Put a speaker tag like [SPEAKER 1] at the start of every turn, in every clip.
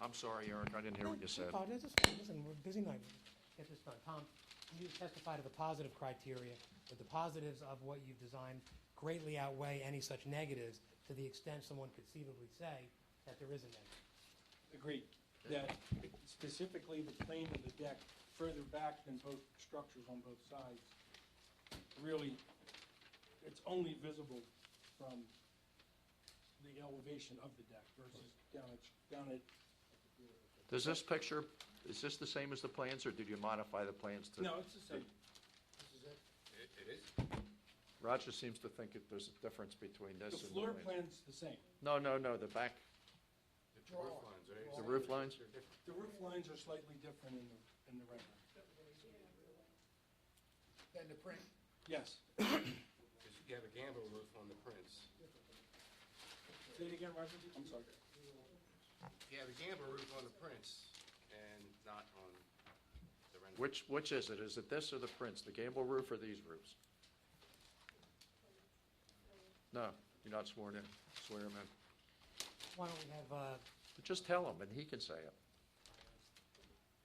[SPEAKER 1] I'm sorry, Eric, I didn't hear what you said.
[SPEAKER 2] Oh, this is, listen, we're busy night at this time. Tom, you testify to the positive criteria, that the positives of what you've designed greatly outweigh any such negatives to the extent someone could conceivably say that there is a negative.
[SPEAKER 3] Agreed, that specifically the plane of the deck further back than both structures on both sides, really, it's only visible from the elevation of the deck versus down at, down at,
[SPEAKER 1] Does this picture, is this the same as the plans, or did you modify the plans to?
[SPEAKER 3] no, it's the same. This is it.
[SPEAKER 4] It, it is.
[SPEAKER 1] Roger seems to think that there's a difference between this
[SPEAKER 3] The
[SPEAKER 1] and.
[SPEAKER 3] floor
[SPEAKER 1] plan.
[SPEAKER 3] plan's the same.
[SPEAKER 1] No, no, no, the back,
[SPEAKER 4] The roof lines are.
[SPEAKER 1] the roof lines?
[SPEAKER 3] The roof lines are slightly different in the, in the rendering.
[SPEAKER 5] than the print.
[SPEAKER 3] Yes.
[SPEAKER 4] Because you have a gambrel roof on the prints.
[SPEAKER 3] Say it again, Roger. I'm sorry.
[SPEAKER 4] You have a gambrel roof on the prints and not on the rendering.
[SPEAKER 1] Which, which is it? Is it this or the prints, the gable roof or these roofs? No, you're not sworn in, swear him in.
[SPEAKER 2] Why don't we have, uh,
[SPEAKER 1] But Just tell him, and he can say it.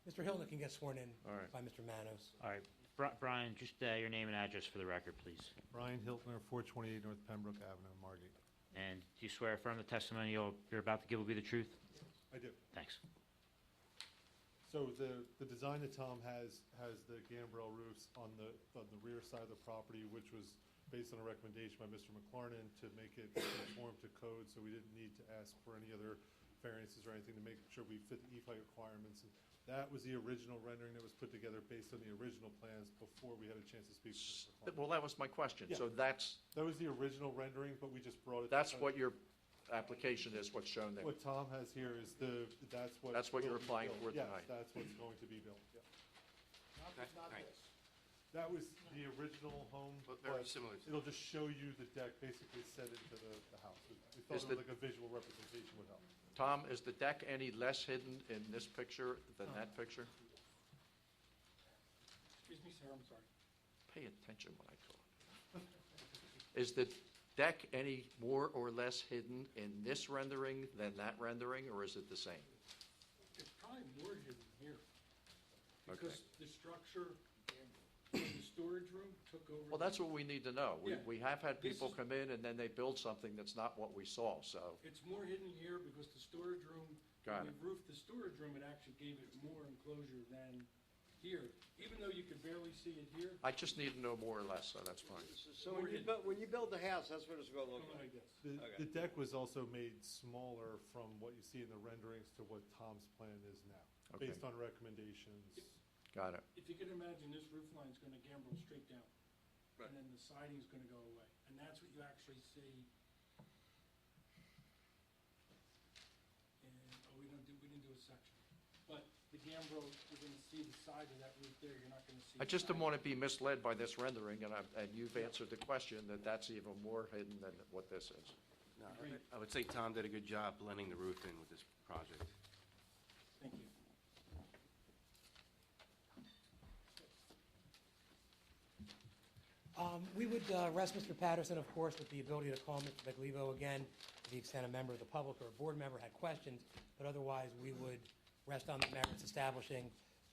[SPEAKER 2] Mr. Hilton can get sworn in
[SPEAKER 1] All right.
[SPEAKER 2] by Mr. Manos.
[SPEAKER 6] All right, Bri- Brian, just uh, your name and address for the record, please.
[SPEAKER 7] Brian Hiltner, 428 North Pembroke Avenue, Margate.
[SPEAKER 6] And do you swear affirm the testimony you'll- you're about to give will be the truth?
[SPEAKER 7] I do.
[SPEAKER 6] Thanks.
[SPEAKER 7] So the, the design that Tom has, has the gambrel roofs on the, on the rear side of the property, which was based on a recommendation by Mr. McLarnon to make it conform to code, so we didn't need to ask for any other variances or anything to make sure we fit the E-Fi requirements. And That was the original rendering that was put together based on the original plans before we had a chance to speak. with Mr. McLaren.
[SPEAKER 1] Well, that was my question. So that's,
[SPEAKER 7] That was the original rendering, but we just brought it.
[SPEAKER 1] that's
[SPEAKER 7] uh,
[SPEAKER 1] what your application is, what's shown there.
[SPEAKER 7] What Tom has here is the, that's what.
[SPEAKER 1] That's what you're
[SPEAKER 7] will be
[SPEAKER 1] applying
[SPEAKER 7] built.
[SPEAKER 1] for tonight.
[SPEAKER 7] Yes, that's what's going to be built, yeah.
[SPEAKER 5] Not,
[SPEAKER 4] Right,
[SPEAKER 5] not
[SPEAKER 4] right.
[SPEAKER 5] this.
[SPEAKER 7] That was the original home,
[SPEAKER 4] But very
[SPEAKER 7] but
[SPEAKER 4] similar to.
[SPEAKER 7] it'll just show you the deck basically set into the, the house. We- We
[SPEAKER 1] Is
[SPEAKER 7] thought it
[SPEAKER 1] the-
[SPEAKER 7] was like a visual representation would help.
[SPEAKER 1] Tom, is the deck any less hidden in this picture than that picture?
[SPEAKER 3] Excuse me, sir, I'm sorry.
[SPEAKER 1] Pay attention when I talk. Is the deck any more or less hidden in this rendering than that rendering, or is it the same?
[SPEAKER 3] It's probably more hidden here.
[SPEAKER 1] Okay.
[SPEAKER 3] Because the structure in the storage room took over.
[SPEAKER 1] Well, that's what we need to know. We,
[SPEAKER 3] Yeah.
[SPEAKER 1] we have had
[SPEAKER 3] This
[SPEAKER 1] people
[SPEAKER 3] is-
[SPEAKER 1] come in and then they build something that's not what we saw, so,
[SPEAKER 3] It's more hidden here because the storage room.
[SPEAKER 1] Got
[SPEAKER 3] when We roofed the storage room, it actually gave it more enclosure than here, even though you could barely see it here,
[SPEAKER 1] I just need to know more or less, so that's fine.
[SPEAKER 8] So when you build, when you build the house, that's what it's gonna look
[SPEAKER 3] something
[SPEAKER 8] like.
[SPEAKER 3] like this.
[SPEAKER 7] The,
[SPEAKER 8] Okay.
[SPEAKER 7] the deck was also made smaller from what you see in the renderings to what Tom's plan is now,
[SPEAKER 1] Okay.
[SPEAKER 7] based on recommendations.
[SPEAKER 1] Got it.
[SPEAKER 3] If you can imagine, this roof line's gonna gambrel straight down.
[SPEAKER 8] Right.
[SPEAKER 3] And then the siding's gonna go away, and that's what you actually see. And, oh, we don't do, we didn't do a section, but the gambrel, you're gonna see the side of that roof there, you're not gonna see.
[SPEAKER 1] I
[SPEAKER 3] the
[SPEAKER 1] just don't
[SPEAKER 3] siding.
[SPEAKER 1] want to be misled by this rendering, and I, and you've answered the question that that's even more hidden than what this is.
[SPEAKER 4] No, I- I would say Tom did a good job blending the roof in with this project.
[SPEAKER 3] Thank you.
[SPEAKER 2] Um, We would uh, rest Mr. Patterson, of course, with the ability to call Mr. Baglivo again, to the extent a member of the public or a board member had questions, but otherwise, we would rest on the merits establishing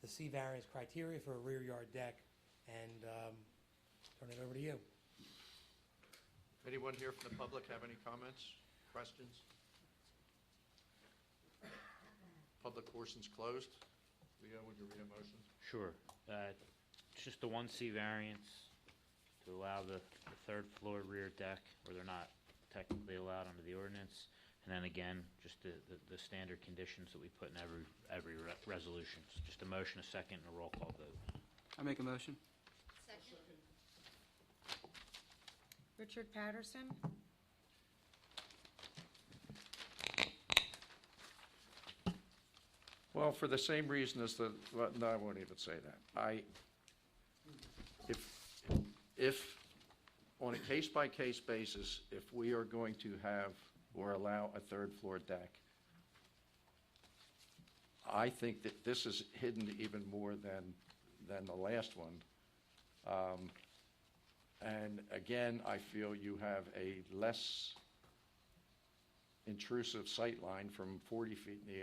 [SPEAKER 2] the C variance criteria for a rear yard deck, and um, turn it over to you.
[SPEAKER 1] Anyone here from the public have any comments, questions? Public portion's closed. Leo, would you read a motion?
[SPEAKER 6] Sure. Uh, It's just the one C variance to allow the the third floor rear deck, where they're not technically allowed under the ordinance. And then again, just the, the- the standard conditions that we put in every, every re- resolution. So Just a motion, a second, and a roll call vote.
[SPEAKER 9] I make a motion.
[SPEAKER 10] Richard Patterson,
[SPEAKER 1] Well, for the same reason as the, well, no, I won't even say that. I, if, if, on a case-by-case basis, if we are going to have or allow a third-floor deck, I think that this is hidden even more than, than the last one. Um, And again, I feel you have a less intrusive sightline from 40 feet in the